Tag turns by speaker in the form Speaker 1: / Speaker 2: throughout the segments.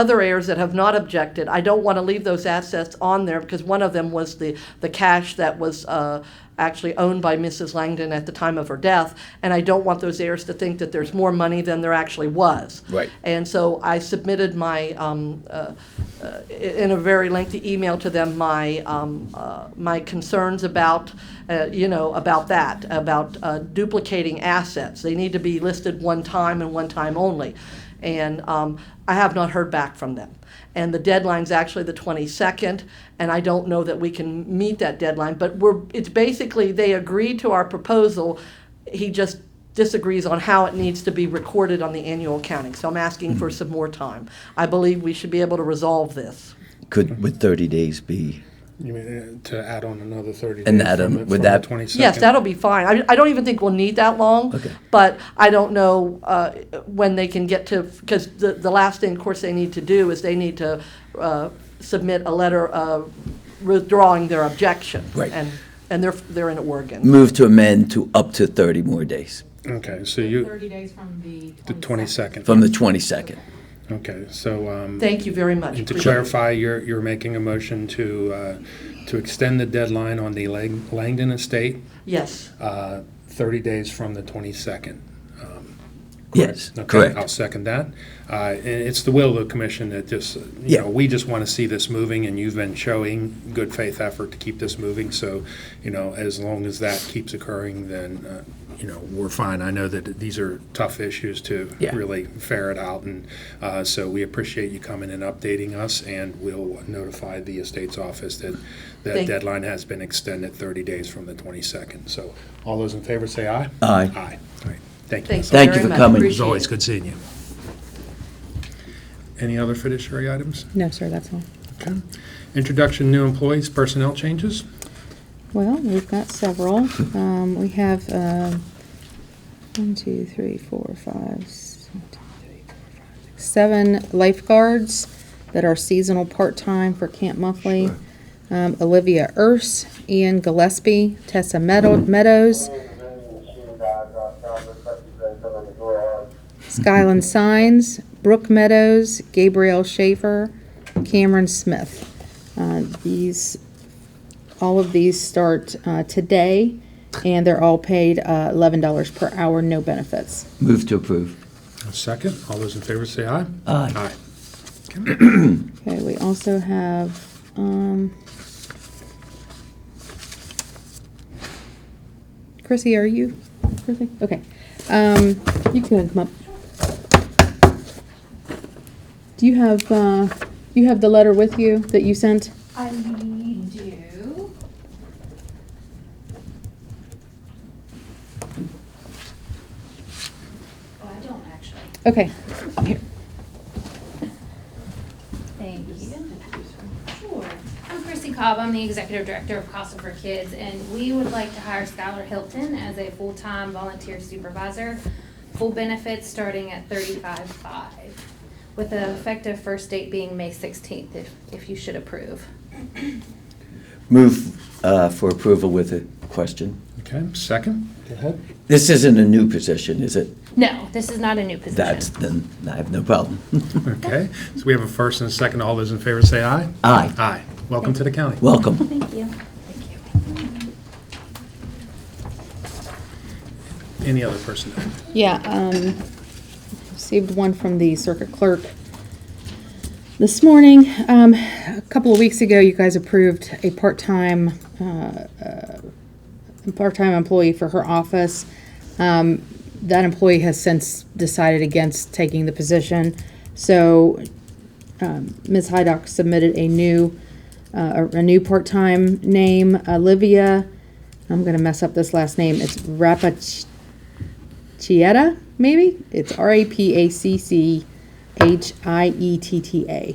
Speaker 1: other heirs that have not objected. I don't want to leave those assets on there because one of them was the, the cash that was uh, actually owned by Mrs. Langdon at the time of her death. And I don't want those heirs to think that there's more money than there actually was.
Speaker 2: Right.
Speaker 1: And so I submitted my, um, uh, uh, i- in a very lengthy email to them, my, um, uh, my concerns about, uh, you know, about that, about uh, duplicating assets. They need to be listed one time and one time only. And um, I have not heard back from them. And the deadline's actually the 22nd, and I don't know that we can meet that deadline. But we're, it's basically, they agreed to our proposal. He just disagrees on how it needs to be recorded on the annual accounting. So I'm asking for some more time. I believe we should be able to resolve this.
Speaker 2: Could, would 30 days be?
Speaker 3: You mean uh, to add on another thirty?
Speaker 2: And
Speaker 3: days
Speaker 2: add
Speaker 3: from
Speaker 2: on-
Speaker 3: the-
Speaker 2: would
Speaker 3: from the
Speaker 2: that-
Speaker 3: 22nd?
Speaker 1: Yes, that'll be fine. I, I don't even think we'll need that long.
Speaker 2: Okay.
Speaker 1: But I don't know uh, when they can get to, because the, the last thing, of course, they need to do is they need to uh, submit a letter uh, withdrawing their objection.
Speaker 2: Right. Mm.
Speaker 1: And, and they're, they're in Oregon.
Speaker 2: Move to amend to up to 30 more days
Speaker 3: Okay, so you,
Speaker 4: 30 days from the
Speaker 3: the 22nd.
Speaker 2: from the 22nd.
Speaker 3: Okay, so, um,
Speaker 1: Thank you very much.
Speaker 3: and to
Speaker 1: Appreciate it.
Speaker 3: clarify, you're, you're making a motion to, uh, to extend the deadline on the Lang- Langdon estate,
Speaker 1: Yes,
Speaker 3: uh, thirty days from the twenty-second.
Speaker 2: Yes,
Speaker 3: Okay, I'll
Speaker 2: correct.
Speaker 3: second that. Uh, And it's the will of the commission that just, you
Speaker 2: Yeah.
Speaker 3: know, we just want to see this moving, and you've been showing good faith effort to keep this moving. So, you know, as long as that keeps occurring, then, uh, you know, we're fine. I know that these are tough issues to
Speaker 2: Yeah.
Speaker 3: really ferret out, and uh, so we appreciate you coming and updating us, and we'll notify the estate's office that that
Speaker 1: Thank-
Speaker 3: deadline has been extended 30 days from the 22nd. So all those in favor say aye.
Speaker 2: Aye.
Speaker 3: Aye. All right. Thank you.
Speaker 1: thanks
Speaker 3: Ms.
Speaker 1: very
Speaker 2: Thank
Speaker 1: much.
Speaker 2: you for coming. It was
Speaker 3: it was
Speaker 1: Appreciate
Speaker 3: always
Speaker 1: it.
Speaker 3: good seeing you. Any other fiduciary items?
Speaker 5: No, sir, that's all.
Speaker 3: Okay. Introduction, new employees, personnel changes?
Speaker 5: Well, we've got several. Um, we have, um, one, two, three, four, five, s- one, two, three, four, five, six, seven lifeguards that are seasonal part-time for Camp Monthly. Um, Olivia Urs, Ian Gillespie, Tessa Meadow- Meadows, Skyland Signs, Brooke Meadows, Gabrielle Schaefer, Cameron Smith. Uh, These, all of these start uh, today, and they're all paid uh, $11 per hour, no benefits.
Speaker 2: Move to approve.
Speaker 3: A second. All those in favor say aye.
Speaker 2: Aye.
Speaker 3: Aye.
Speaker 5: Okay, we also have, um, Chrissy, are you, Chrissy? Okay, um, you can come up. Do you have, uh, you have the letter with you that you sent?
Speaker 4: I do. Oh, I don't actually.
Speaker 5: Okay, here.
Speaker 4: Thank you. Sure. I'm Chrissy Cobb, I'm the Executive Director of Casa for Kids, and we would like to hire Skylar Hilton as a full-time volunteer supervisor, full benefits starting at $35,500, with the effective first date being May 16th, if, if you should approve.
Speaker 2: Move uh, for approval with a question.
Speaker 3: Okay, second. Go ahead.
Speaker 2: This isn't a new position, is it?
Speaker 4: No, this is not a new position.
Speaker 2: That's, then I have no problem.
Speaker 3: Okay, so we have a first and a second. All those in favor say aye.
Speaker 2: Aye.
Speaker 3: Aye. Welcome to the county.
Speaker 2: Welcome.
Speaker 4: Thank you.
Speaker 3: Any other personnel?
Speaker 5: Yeah, um, received one from the circuit clerk this morning. Um, a couple of weeks ago, you guys approved a part-time, uh, uh, part-time employee for her office. Um, that employee has since decided against taking the position. So, um, Ms. Hydock submitted a new, uh, a a new part-time name, Olivia, I'm gonna mess up this last name, it's Rapach, Chieta, maybe? It's R A P A C C H I E T T A.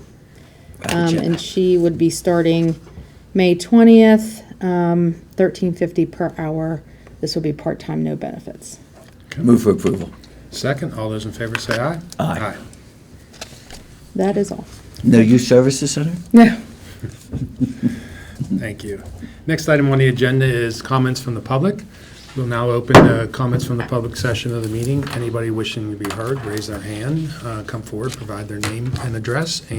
Speaker 5: Um, and she would be starting May twentieth, um, thirteen fifty per hour. This would be part-time, no benefits.
Speaker 2: Move for approval.
Speaker 3: Second. All those in favor say aye.
Speaker 2: Aye.
Speaker 5: That is all.
Speaker 2: No youth services center?
Speaker 5: No.
Speaker 3: Thank you. Next item on the agenda is comments from the public. We'll now open the comments from the public session of the meeting. Anybody wishing to be heard, raise their hand, uh, come forward, provide their name and address,